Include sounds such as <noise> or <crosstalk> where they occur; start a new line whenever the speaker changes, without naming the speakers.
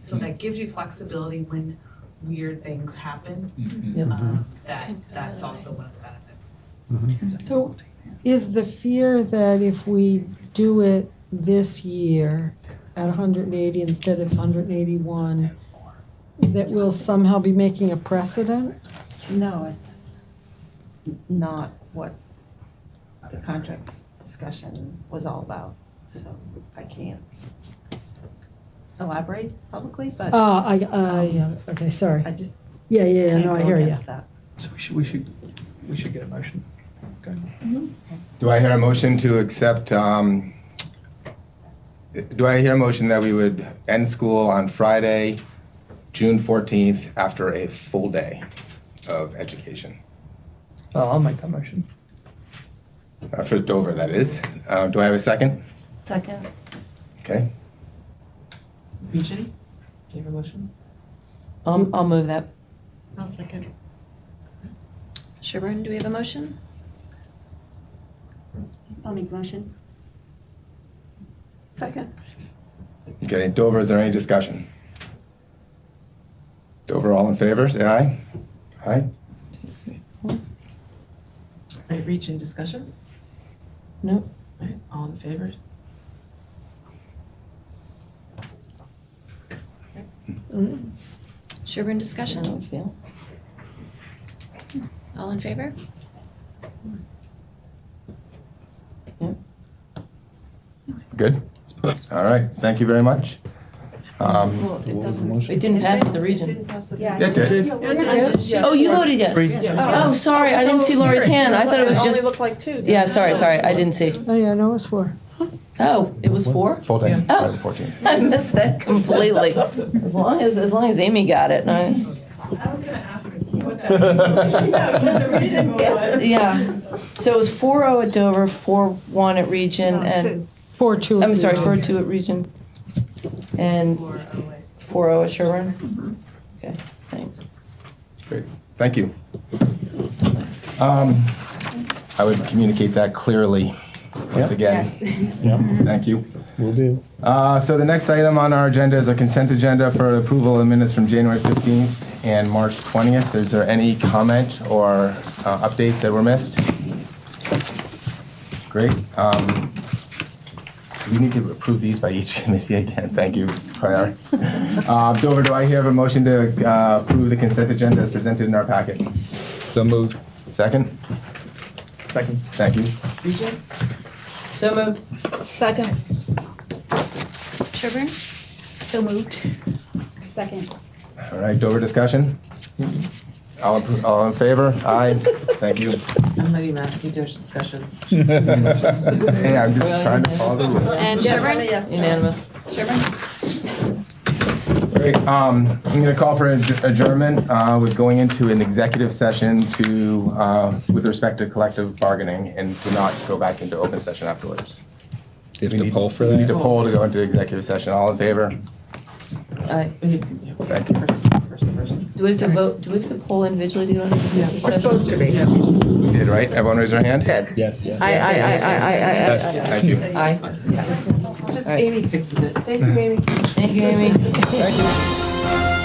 So that gives you flexibility when weird things happen.
Mhm.
Um, That, that's also one of the benefits.
So is the fear that if we do it this year at 180 instead of 181, that we'll somehow be making a precedent?
No, it's not what the contract discussion was all about, so I can't elaborate publicly, but
Ah, I, I, yeah, okay, sorry.
I just
Yeah, yeah, yeah,
can't
no,
go
I hear you.
against that.
So we should, we should, we should get a motion.
Mm-hmm.
Do I hear a motion to accept, um, do I hear a motion that we would end school on Friday, June 14th, after a full day of education?
Oh, I'll make that motion.
Uh, For Dover, that is. Uh, Do I have a second?
Second,
Okay.
Peachy, do you have a motion?
I'll, I'll move that.
I'll second.
Sherburne, do we have a motion?
I'll make motion.
second,
Okay, Dover, is there any discussion? Dover, all in favor, say aye. Aye?
All right, reach in discussion?
No.
All right, all in favor?
Mm-hmm.
Sherburne
I
discussion?
don't feel.
All in favor?
Good? All right, thank you very much. Um,
Well, it doesn't.
It didn't pass at the
It
region.
didn't pass at the
Yeah.
region.
It did.
Oh, you voted yes.
Three.
Oh, sorry, I didn't see Laura's hand. I thought it was
It
just,
only looked like two.
yeah, sorry, sorry, I didn't see.
Oh, yeah, no, it's for.
Oh, it was four?
Full day,
Yeah.
Friday the 14th.
I missed that completely. As long as, as long as Amy got it, I, <laughs>
<laughs>
yeah. So it was four oh at Dover, four one at region, and,
Four, two.
I'm sorry, four two at region, and four oh at Sherburne? Okay, thanks.
Thank you. Um, I would communicate that clearly,
Yep.
once again.
Yep,
Thank you.
will do.
Uh, So the next item on our agenda is a consent agenda for approval of minutes from January 15th and March 20th. Is there any comment or uh, updates that were missed? Great. Um, We need to approve these by each <laughs> committee again. Thank you, Prior. <laughs> Uh, Dover, do I hear a motion to uh, approve the consent agenda as presented in our packet? So moved. Second?
Second.
Thank you.
Region?
So moved.
Second.
Sherburne?
So moved. Second.
All right, Dover discussion? All appro- all in favor? Aye. Thank you.
I'm not even asking, there's discussion.
Hey, I'm just trying to follow the rules.
And
Yes,
Sherburne?
yes.
Unanimous.
Great, um, I'm gonna call for adj- adjournment, uh, with going into an executive session to, uh, with respect to collective bargaining and to not go back into open session afterwards.
Do you
We
have to
need-
poll for
We need to
that?
poll to go into executive session. All in favor?
Aye.
We need- yeah, we'll-
Thank you.
first- first person.
Do we have to vote, do we have to poll individually to go into executive
We're
session?
supposed to be.
Yeah.
We did, right? Everyone raise their hand? Good.
Yes, yes.
I, I, I, I, I, I.
Yes.
Thank you.
Aye.
Just Amy fixes it.
Thank you, Amy.
Thank you, Amy.
Thank you.